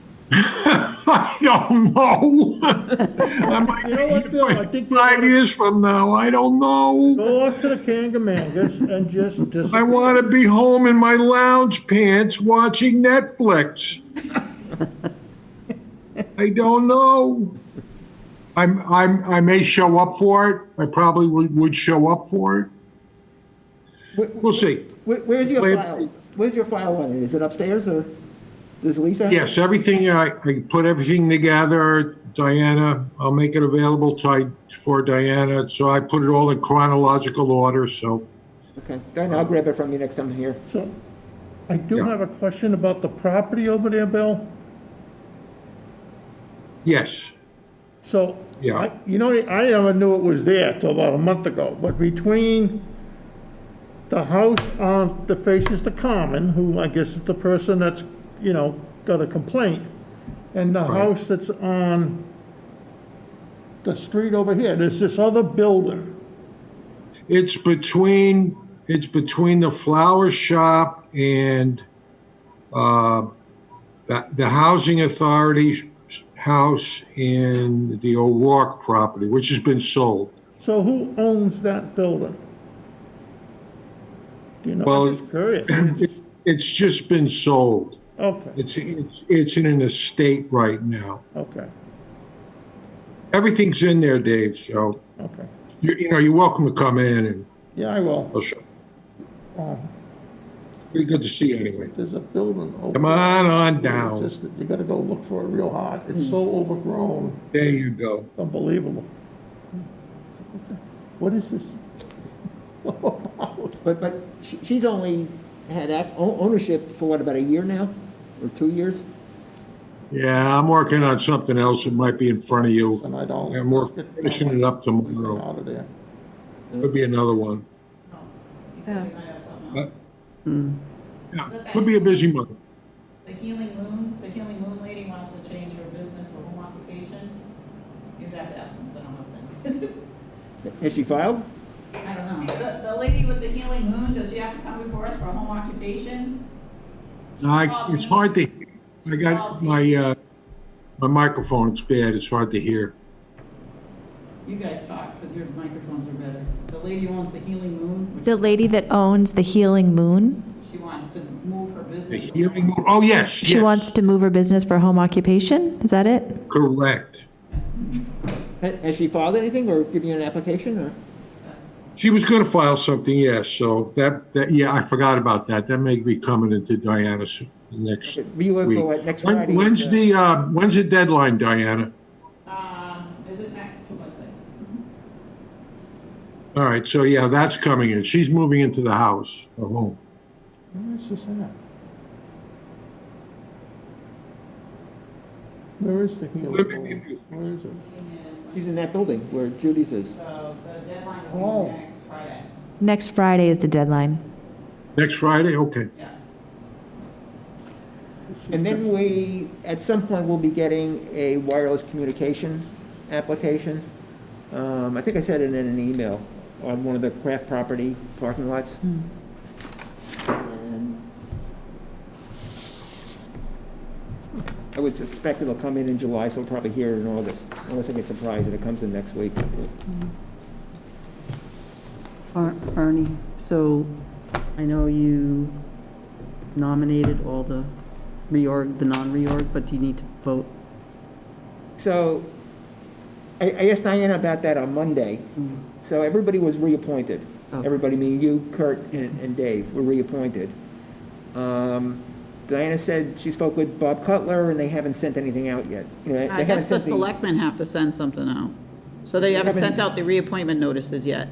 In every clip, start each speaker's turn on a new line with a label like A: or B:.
A: I don't know. I might
B: You know what, Bill, I
A: be
B: think you ought
A: five
B: to-
A: years from now, I don't know.
B: Go up to the Kangamangas and just
A: I
B: disappear.
A: want to be home in my lounge pants watching Netflix. I don't know. I'm, I'm, I may show up for it. I probably would, would show up for it. We'll see.
C: Where, where's your
A: Wait.
C: file? Where's your file on it? Is it upstairs or does Lisa? have it?
A: Yes, everything, I, I put everything together, Diana, I'll make it available to, for Diana, so I put it all in chronological order, so.
C: Okay, Diane, I'll grab it from you next time I'm here.
B: So, I do
A: Yeah.
B: have a question about the property over there, Bill.
A: Yes,
B: So,
A: Yeah.
B: I- you know, I never knew it was there till about a month ago, but between the house on, that faces the common, who I guess is the person that's, you know, got a complaint, and the house that's on the street over here, there's this other building.
A: it's between, it's between the flower shop and, uh, the, the housing authority's house and the O'Rourke property, which has been sold.
B: So who owns that building? Do you know,
A: Well-
B: I'm just curious.
A: It's just been sold.
B: Okay,
A: It's, it's, it's in an estate right now.
B: okay,
A: Everything's in there, Dave, so,
B: okay.
A: you, you know, you're welcome to come in and
B: Yeah, I will.
A: I'll show.
B: Uh,
A: Pretty good to see you anyway.
B: There's a building over.
A: Come on on
B: It's
A: down.
B: just that you gotta go look for it real hard.
C: Hmm.
B: It's so overgrown,
A: There you go.
B: unbelievable. What is this? all about?
C: But, but she- she's only had ac- o- ownership for what, about a year now? Or two years?
A: Yeah, I'm working on something else that might be in front of you.
B: And I don't.
A: I'm working, finishing it up tomorrow.
B: Out of there.
A: Could be another one.
D: Oh, Yeah. The
A: But- Yeah, could be a busy month.
D: Healing Moon, the Healing Moon lady wants to change her business to home occupation. You'd have to ask them, I don't know them.
C: Has she filed?
D: I don't know. The, the lady with the Healing Moon, does she have to come before us for a home occupation?
A: I, it's hard to, I got my, uh, my microphone's bad. It's hard to hear.
D: You guys talk, because your microphones are better. The lady who owns the Healing Moon,
E: The
D: which
E: lady that owns the Healing Moon,
D: she wants to move her
A: The
D: business.
A: hearing, oh, yes,
E: she
A: yes,
E: wants to move her business for home occupation? Is that it?
A: Correct.
C: Ha- Has she filed anything or given you an application or?
A: She was going to file something, yes, so that, that, yeah, I forgot about that. That may be coming into Diana soon, next
C: Were you in
A: week.
C: for what, next
A: When-
C: Friday?
A: When's the, uh, when's the deadline, Diana?
D: Uh, is it next, what's it?
A: All right, so yeah, that's coming in. She's moving into the house, the home.
B: Where is this at? Where is the healing?
A: Let me-
B: Bowl? Where is it?
C: She's in that building where Judy's is.
D: So the deadline
B: Oh.
D: will be next Friday,
E: Next Friday is the deadline.
A: Next Friday, okay.
D: yeah.
C: And then we, at some point, we'll be getting a wireless communication application. Um, I think I said it in an email on one of the craft property parking lots. And I would expect it'll come in in July, so we'll probably hear it in August, unless I get surprised and it comes in next week.
F: Ar- Arnie, so I know you nominated all the reorg, the non-reorg, but do you need to vote?
C: So I, I asked Diana about that on Monday. So everybody was reappointed.
F: Mm-hmm. Okay.
C: Everybody, meaning you, Kurt, and, and Dave, were reappointed. Um, Diana said she spoke with Bob Cutler and they haven't sent anything out yet. You know, they
D: I
C: haven't
D: guess the
C: sent
D: selectmen have to send something out. So they haven't sent out the reappointment notices yet.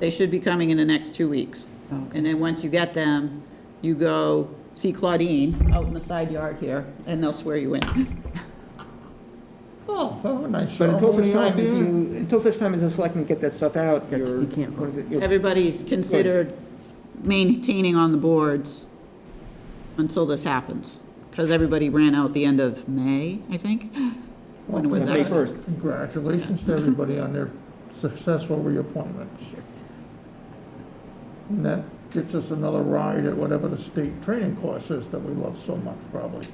D: They should be coming in the next two weeks.
F: Okay.
D: And then once you get them, you go see Claudine out in the side yard here, and they'll swear you in. Oh,
B: Oh, nice.
C: But until such
B: ceremony out
C: time as
B: there.
C: you, until such time as the selectmen get that stuff out,
F: Yeah,
C: you're.
F: you can't vote.
C: you're-
D: everybody's considered maintaining on the boards until this happens, because everybody ran out the end of May, I think. When it was
C: May
D: that?
C: 1st.
B: Congratulations to everybody on their successful reappointments. And that gets us another ride at whatever the state training course is that we love so much, probably.